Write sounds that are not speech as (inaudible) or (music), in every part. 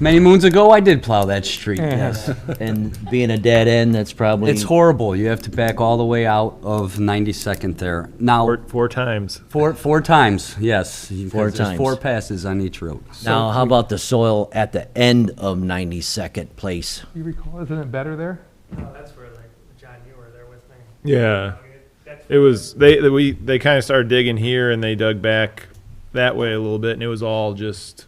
Many moons ago, I did plow that street, yes. And being a dead end, that's probably. It's horrible. You have to back all the way out of 92nd there. Now, Four, four times. four, four times, yes. because Four there's times. Four passes on each road. Now, how about the soil at the end of 92nd Place? You recall, isn't it better there? Oh, that's where like John, you were there with me. Yeah. That's It was they they- we they kind of started digging here and they dug back that way a little bit and it was all just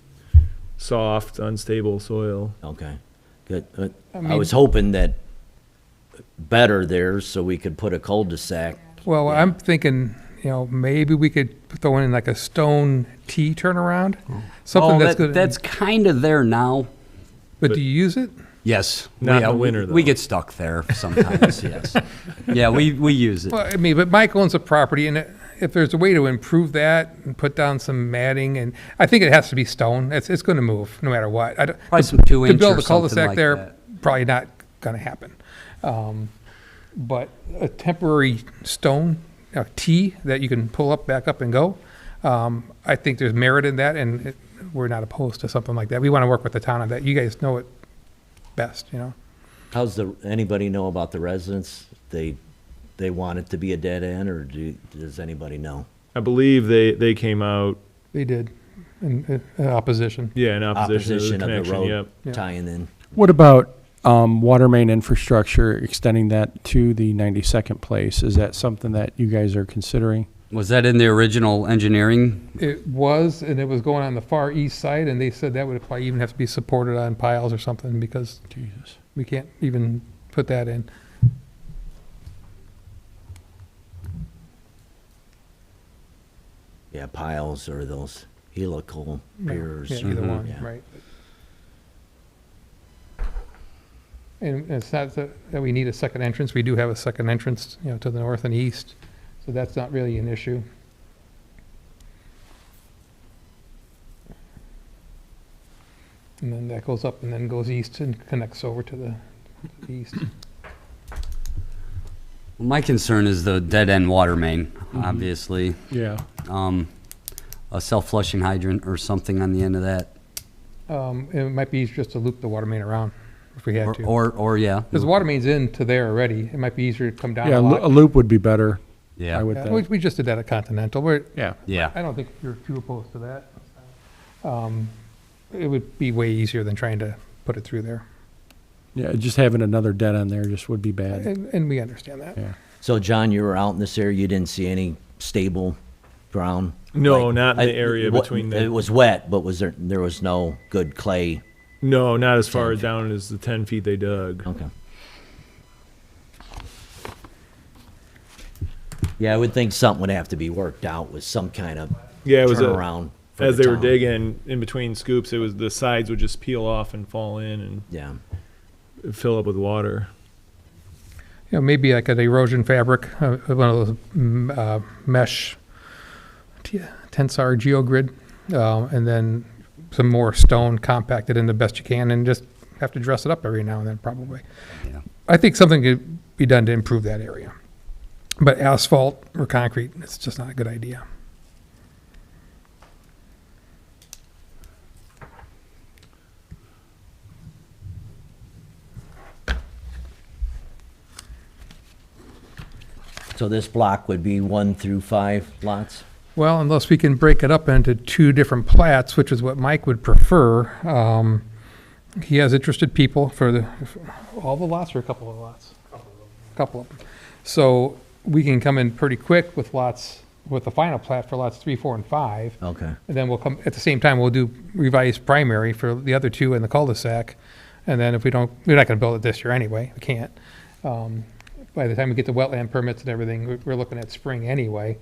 soft, unstable soil. Okay, good. Uh, I mean- was hoping that better there, so we could put a cul-de-sac. Well, I'm thinking, you know, maybe we could throw in like a stone T turnaround, something Oh, that's that- good. that's kind of there now. But do you use it? Yes. Not in Yeah, the we- winter, We though. get stuck there (laughs) sometimes, yes. Yeah, we, we use it. Well, I mean, but Mike owns a property, and if there's a way to improve that and put down some matting, and I think it has to be stone. It's, it's going to move no matter what. I don't- Probably some two To inch build or a something cul-de-sac like there, that. probably not going to happen. Um, But a temporary stone, a T that you can pull up, back up and go, um, I think there's merit in that, and it- we're not opposed to something like that. We want to work with the town on that. You guys know it best, you know? How's the, anybody know about the residents? They, they want it to be a dead end, or do, does anybody know? I believe they they came out They did, in in opposition. yeah in opposition, Opposition to the of the connection. Yep. road tying in. What about um, water main infrastructure, extending that to the 92nd place? Is that something that you guys are considering? Was that in the original engineering? It was, and it was going on the far east side, and they said that would probably even have to be supported on piles or something, because Jesus. we can't even put that in. Yeah, piles or those helical piers. Yeah, either one, Yeah. right. And it's not that that we need a second entrance, we do have a second entrance, you know, to the north and east, so that's not really an issue. And then that goes up and then goes east and connects over to the to the east. My concern is the dead end water main, Mm-hmm. obviously. Yeah. Um, a self flushing hydrant or something on the end of that. Um, it might be easier just to loop the water main around if we had Or, to. or, or, yeah. Because the water main's into there already, it might be easier to come down Yeah, a a lo- a lot. loop would be better, I Yeah, would Yeah, We, think. we just did that at Continental, we're, Yeah. yeah. I don't think you're too opposed to that. Um, It would be way easier than trying to put it through there, Yeah, just having another dead end there just would be bad. and, and we understand that. Yeah. So John, you were out in this area, you didn't see any stable ground? No, Like- not in I- the area what- between It the was wet, but was there, there was no good clay? No, not as far down as the ten feet they dug. Okay. Yeah, I would think something would have to be worked out with some kind of Yeah, it was a- turnaround. for As the they were town. digging in between scoops, it was the sides would just peel off and fall in Yeah, and fill up with water. You know, maybe like an erosion fabric, uh, one of those mm, uh, mesh t- tensar geogrid, uh, and then some more stone compacted in the best you can, and just have to dress it up every now and then, probably. Yeah. I think something could be done to improve that area. But asphalt or concrete, it's just not a good idea. so this block would be one through five lots? Well, unless we can break it up into two different plats, which is what Mike would prefer, um, he has interested people for the, all the lots or a couple of lots? Couple of them. So we can come in pretty quick with lots, with the final plat for lots three, four, and five. Okay, And then we'll come, at the same time, we'll do revised primary for the other two in the cul-de-sac. And then if we don't, we're not gonna build it this year anyway, we can't. Um, By the time we get the wetland permits and everything, we- we're looking at spring anyway.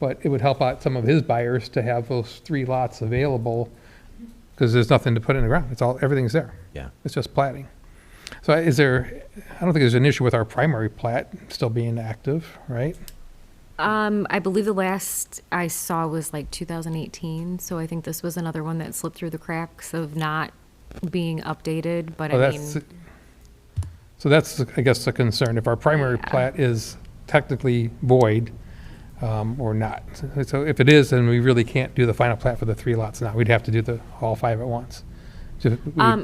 But it would help out some of his buyers to have those three lots available, because there's nothing to put in the ground, it's all, everything's there. yeah. It's just plating. So is there, I don't think there's an issue with our primary plat still being active, right? Um, I believe the last I saw was like 2018, so I think this was another one that slipped through the cracks of not being updated, but Oh, I that's, mean, so that's, I guess, the concern, if our primary Yeah. plat is technically void um, or not. So if it is, then we really can't do the final plat for the three lots now, we'd have to do the, all five at once. So we- um,